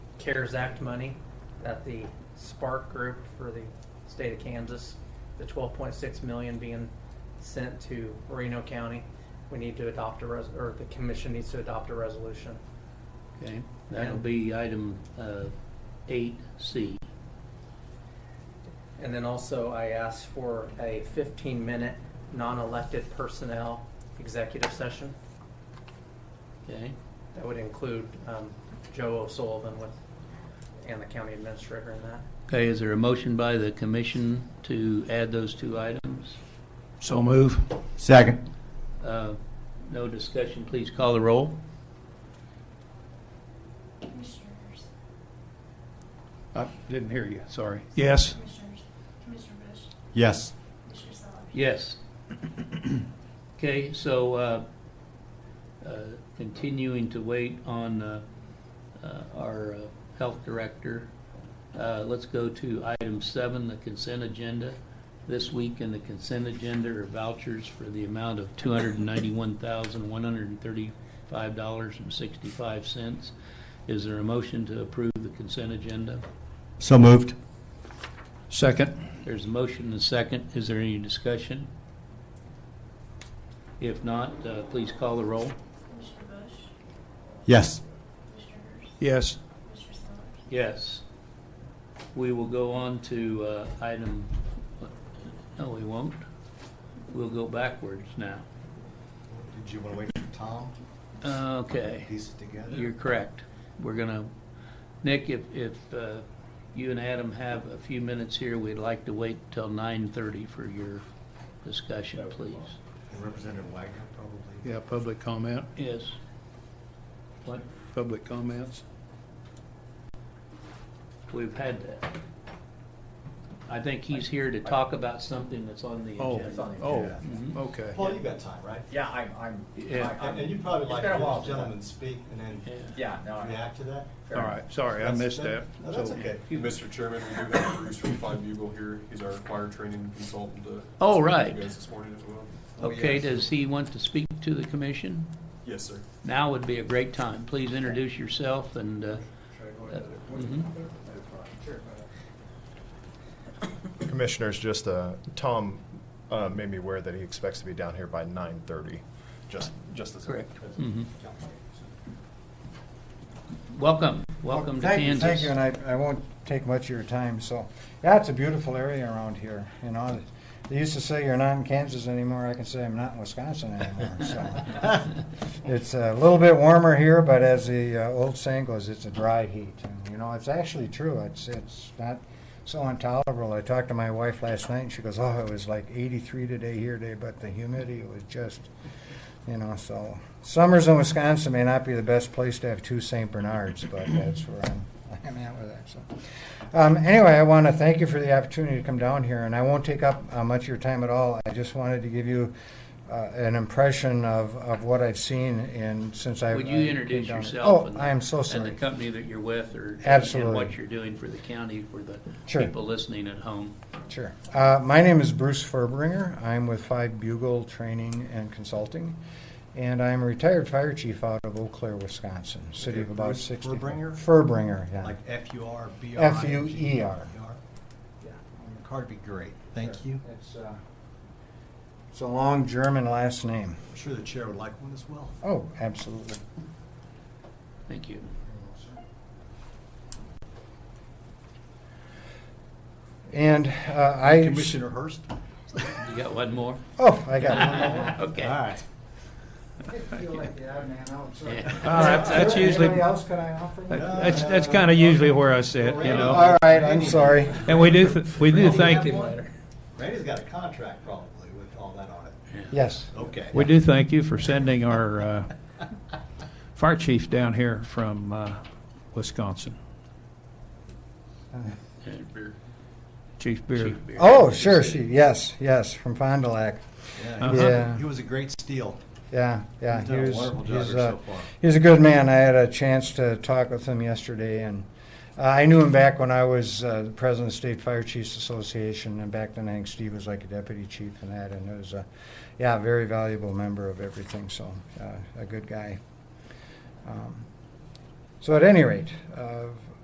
CARES Act money that the Spark Group for the state of Kansas, the 12.6 million being sent to Reno County. We need to adopt a res, or the commission needs to adopt a resolution. Okay, that'll be item uh, eight C. And then also I asked for a 15-minute non-elected personnel executive session. Okay, That would include um, Joe O'Sullivan with, and the county administrator in that. okay, is there a motion by the commission to add those two items? So move. Second. Uh, No discussion, please call the roll. Commissioners, I didn't hear you, sorry. Yes. Commissioners, Commissioner Bush, Yes. Commissioner Salavi. Yes. Okay, so uh, uh, continuing to wait on uh, uh, our uh, health director, uh, let's go to item seven, the consent agenda. This week in the consent agenda are vouchers for the amount of $291,135.65. Is there a motion to approve the consent agenda? So moved. Second. There's a motion and a second. Is there any discussion? If not, uh, please call the roll. Commissioner Bush, Yes. Commissioner Hurst, Yes. Commissioner Sellers, Yes. We will go on to uh, item, uh, no, we won't. We'll go backwards now. Did you want to wait for Tom to Okay, piece it together? you're correct. We're gonna, Nick, if, if uh, you and Adam have a few minutes here, we'd like to wait till 9:30 for your discussion, please. And Representative Wagner, probably. Yeah, public comment, Yes. What? public comments. We've had that. I think he's here to talk about something that's on the Oh, agenda. oh, Yeah. Mm-hmm. Mhm. okay. Paul, you've got time, right? Yeah, I'm, I'm, Yeah. I- And and you'd probably It's like been a to while let the since I- gentleman speak and then Yeah. yeah, no, I. react to that? fair All enough. right, sorry, I That's- missed that. No, that's So- okay. Mr. Chairman, we do have Bruce from Five Bugle here. He's our fire training consultant. to Oh, speak to right. You guys this morning as well? Oh, Okay, yes. does he want to speak to the commission? Yes, sir. Now would be a great time. Please introduce yourself and, uh, mhm. Commissioners, just, uh, Tom, uh, made me aware that he expects to be down here by nine thirty, just, just as. a- correct. Hmm. Mhm. Welcome, welcome to Thank you, Kansas. Thank you, and I, I won't take much of your time, so, yeah, it's a beautiful area around here, you know. They used to say you're not in Kansas anymore, I can say I'm not in Wisconsin anymore, so. It's a little bit warmer here, but as the uh, old saying goes, it's a dry heat, and, you know, it's actually true, it's, it's not so intolerable. I talked to my wife last night, and she goes, oh, it was like eighty-three today here today, but the humidity was just, you know, so. Summers in Wisconsin may not be the best place to have two St. Bernards, but that's where I'm, I'm at with that, so. Um, anyway, I want to thank you for the opportunity to come down here, and I won't take up uh, much of your time at all. I just wanted to give you uh, an impression of, of what I've seen in since I. Would I you came introduce down here. yourself? Oh, and- I am so sorry. And the company that you're with or? And Absolutely. what you're doing for the county, for the Sure. people listening at home. Sure. Uh, my name is Bruce Furbringer. I'm with Five Bugle Training and Consulting, and I'm a retired fire chief out of Eau Claire, Wisconsin, city of about Bruce sixty. Furbringer? Furbringer, yeah. E Like F U R B R I N G. F-U-E-R. Yeah, on your card would be great. Thank you. It's, uh, it's a long German last name. I'm sure the chair would like one as well. Oh, absolutely. Thank you. And uh, I. Commissioner Hurst? You got one more? Oh, I got one more. Okay. All right. All right, Uh, that's usually- Anybody else can I offer? That- you? That's, that's kind of usually where I sit, you know. All right, I'm sorry. And we do, th- we do thank Thank you. you, Randy's got a contract probably with all that on it. Yes. Okay. we do thank you for sending our uh, fire chief down here from uh, Wisconsin, And beer. Chief Beard. Chief Beer. Oh, sure, she, yes, yes, from Fond du Lac. Uh-huh. Yeah, he was- Yeah, He was a great steal. yeah, yeah. He's done a He's- wonderful job he's, here uh, so far. He's a good man. I had a chance to talk with him yesterday, and uh, I knew him back when I was uh, the president of the State Fire Chiefs Association, and back then I think Steve was like a deputy chief and that, and it was a, yeah, very valuable member of everything. So uh, a good guy. Um, so at any rate, uh,